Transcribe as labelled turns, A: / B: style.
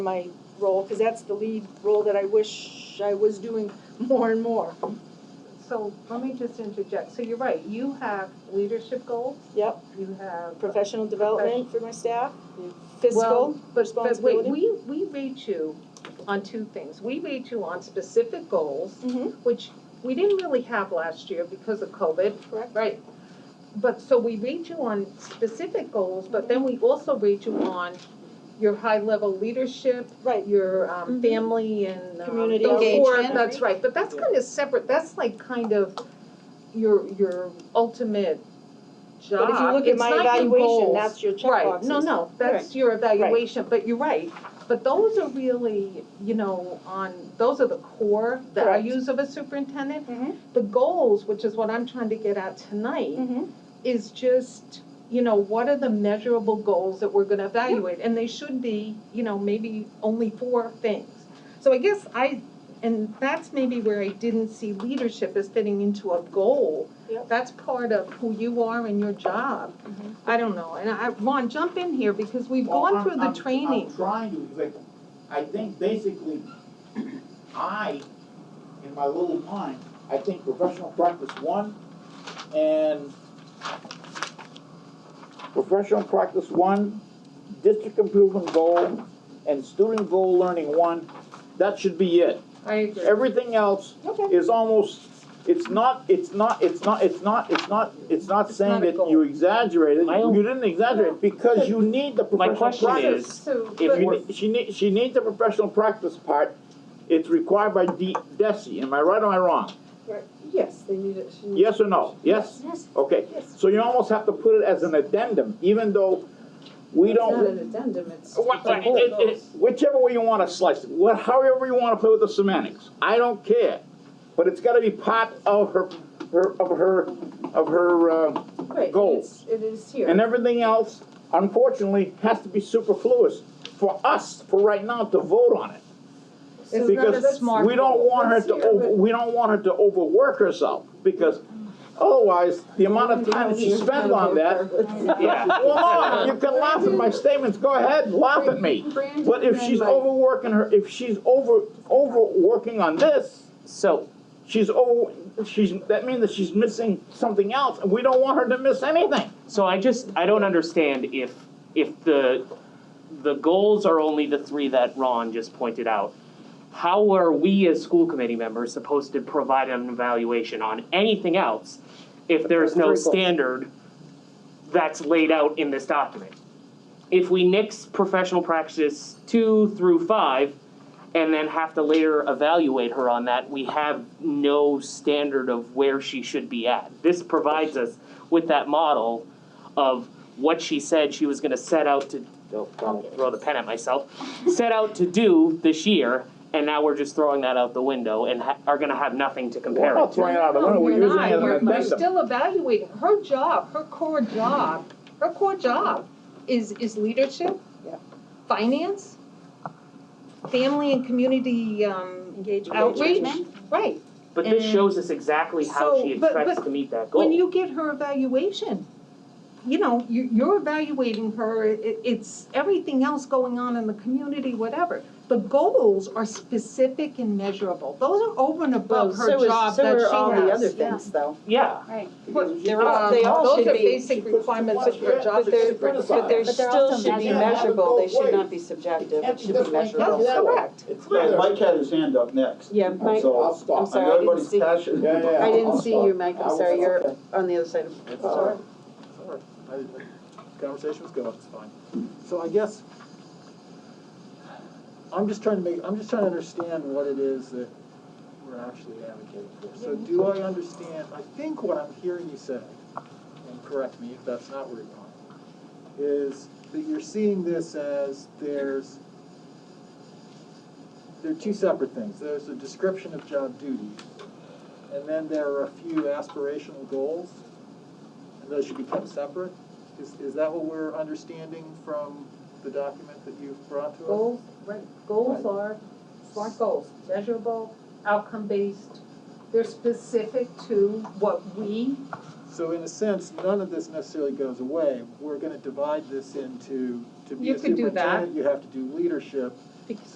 A: my role, because that's the lead role that I wish I was doing more and more.
B: So let me just interject. So you're right, you have leadership goals,
A: Yep,
B: you have.
A: professional development for my staff,
B: Well,
A: fiscal,
B: but-
A: responsibility.
B: But wait, we, we rate you on two things. We rate you on specific goals,
A: Mhm.
B: which we didn't really have last year because of COVID.
A: correct?
B: Right. But, so we rate you on specific goals, but then we also rate you on your high-level leadership,
A: Right,
B: your
A: Mhm.
B: um, family and um,
A: Community
B: those four-
A: engagement.
B: That's right, but that's kind of separate, that's like kind of your, your ultimate job.
A: but if you look at
B: It's
A: my
B: not your
A: evaluation,
B: goals.
A: that's your
B: Right,
A: checkboxes.
B: no, no, that's your evaluation, but you're right. But those are really, you know, on, those are the core values of a superintendent.
A: Mhm.
B: The goals, which is what I'm trying to get at tonight,
A: Mhm.
B: is just, you know, what are the measurable goals that we're gonna evaluate? And they should be, you know, maybe only four things. So I guess I, and that's maybe where I didn't see leadership as fitting into a goal.
A: Yep.
B: That's part of who you are and your job.
A: Mhm.
B: I don't know, and I, Ron, jump in here, because we've
C: Well,
B: gone
C: Oh, I'm-
B: through the
C: I'm-
B: training.
C: I'm trying to, because I, I think basically, I, in my little mind, I think professional practice one and professional practice one, district improvement goal, and student goal learning one, that should be it.
B: I agree.
C: Everything else
A: Okay,
C: is almost, it's not, it's not, it's not, it's not, it's not, it's not
B: It's
C: saying
B: not a
C: that
B: goal.
C: you exaggerated,
D: My own-
C: you didn't exaggerate, because you need the
D: My
C: professional practice.
D: question
B: So,
D: is, if
C: But
B: but-
D: we're-
C: you- she need, she needs the professional practice part, it's required by D, DESI, am I right or am I wrong?
B: yes, they need it.
C: Yes or no? Yes?
A: Yes.
C: Okay,
B: Yes.
C: so you almost have to put it as an addendum, even though we don't.
B: an addendum, it's.
C: What- it- it- it- Whichever way you wanna slice it, what, however you wanna play with the semantics, I don't care. But it's gotta be part of her, her, of her, of her, uh, goals.
B: It is here.
C: and everything else, unfortunately, has to be superfluous for us, for right now, to vote on it.
B: It's not a
C: because
B: smart
C: we don't
B: goal.
C: want her to
B: Let's hear
C: over,
B: it.
C: we don't want her to overwork herself, because otherwise, the amount of time that she spends on that.
D: Yeah.
C: Well, no, you can laugh at my statements, go ahead, laugh at me, but if she's overworking her, if she's over, overworking on this,
D: So,
C: she's over, she's, that means that she's missing something else, and we don't want her to miss anything.
D: so I just, I don't understand if, if the, the goals are only the three that Ron just pointed out. How are we as school committee members supposed to provide an evaluation on anything else if there's no
C: Those three goals.
D: standard that's laid out in this document? If we nix professional practices two through five and then have to later evaluate her on that, we have no standard of where she should be at. This provides us with that model of what she said she was gonna set out to, oh, I'll throw the pen at myself, set out to do this year, and now we're just throwing that out the window and ha- are gonna have nothing to
C: We're
D: compare it
C: not
D: to.
C: throwing it out the window,
B: Oh,
C: we're using it as
B: No,
C: an
B: we're not, we're, we're
C: addendum.
B: still evaluating, her job, her core job, her core job is, is leadership.
A: Yeah.
B: Finance, family and community, um, outreach, right.
D: But this
B: And-
D: shows us exactly how
B: So,
D: she
B: but-
D: expects
B: but
D: to meet that goal.
B: When you get her evaluation, you know, you, you're evaluating her, it, it's everything else going on in the community, whatever. The goals are specific and measurable, those are over and above her job that she has.
A: things, though.
D: Yeah,
C: Because
A: they're all-
B: Um,
A: they all
B: those
A: should
B: are
A: be-
B: basic requirements of your job.
C: But they're-
E: But there
A: But they're
E: still
A: also
E: should be
C: measurable.
E: measurable, they should not be
C: It
E: subjective,
C: can't
E: it
C: be
E: should
C: just
E: be
C: like
E: measurable.
C: that.
B: That's correct.
C: It's
F: Yeah,
C: clear.
F: Mike had his hand up next.
E: Yeah, Mike,
F: So,
C: I'll stop.
E: I'm
F: on
E: sorry, I didn't
F: everybody's
E: see, I
F: passion.
C: Yeah, yeah, I'll
E: didn't see
C: stop.
E: you, Mike,
C: I
E: I'm
C: was-
E: sorry, you're on the other side of,
F: It's all
E: sorry.
F: right.
G: All right, I- Conversation's good, it's fine. So I guess, I'm just trying to make, I'm just trying to understand what it is that we're actually advocating for. So do I understand, I think what I'm hearing you say, and correct me if that's not where you're going, is that you're seeing this as there's, there are two separate things. There's a description of job duties, and then there are a few aspirational goals and those should be kept separate? Is, is that what we're understanding from the document that you've brought to us?
B: Goals, right, goals are SMART goals, measurable, outcome-based. They're specific to what we,
G: So in a sense, none of this necessarily goes away. We're gonna divide this into, to be
B: You
G: a
B: could do that.
G: superintendent, you have to do leadership.
B: because